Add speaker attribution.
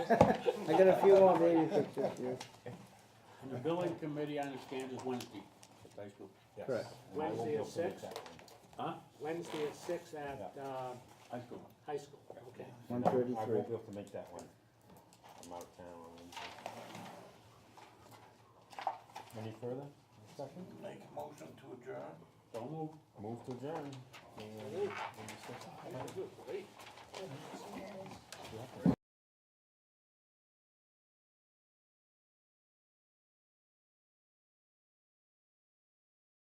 Speaker 1: I got a few more baby pictures here.
Speaker 2: And the billing committee, I understand, is Wednesday at Dice Group.
Speaker 3: Yes.
Speaker 1: Correct.
Speaker 3: And I will
Speaker 4: Wednesday at
Speaker 3: be able to make
Speaker 4: six?
Speaker 3: that one.
Speaker 2: Huh?
Speaker 4: Wednesday at six at, uh,
Speaker 2: Dice Group.
Speaker 4: high school, okay.
Speaker 1: One
Speaker 3: No, I
Speaker 1: thirty-three.
Speaker 3: won't be able to make that one. I'm out of town on Wednesday. Any further discussion?
Speaker 5: Make a motion to adjourn?
Speaker 2: Don't move.
Speaker 3: Move to adjourn. And-
Speaker 4: Great.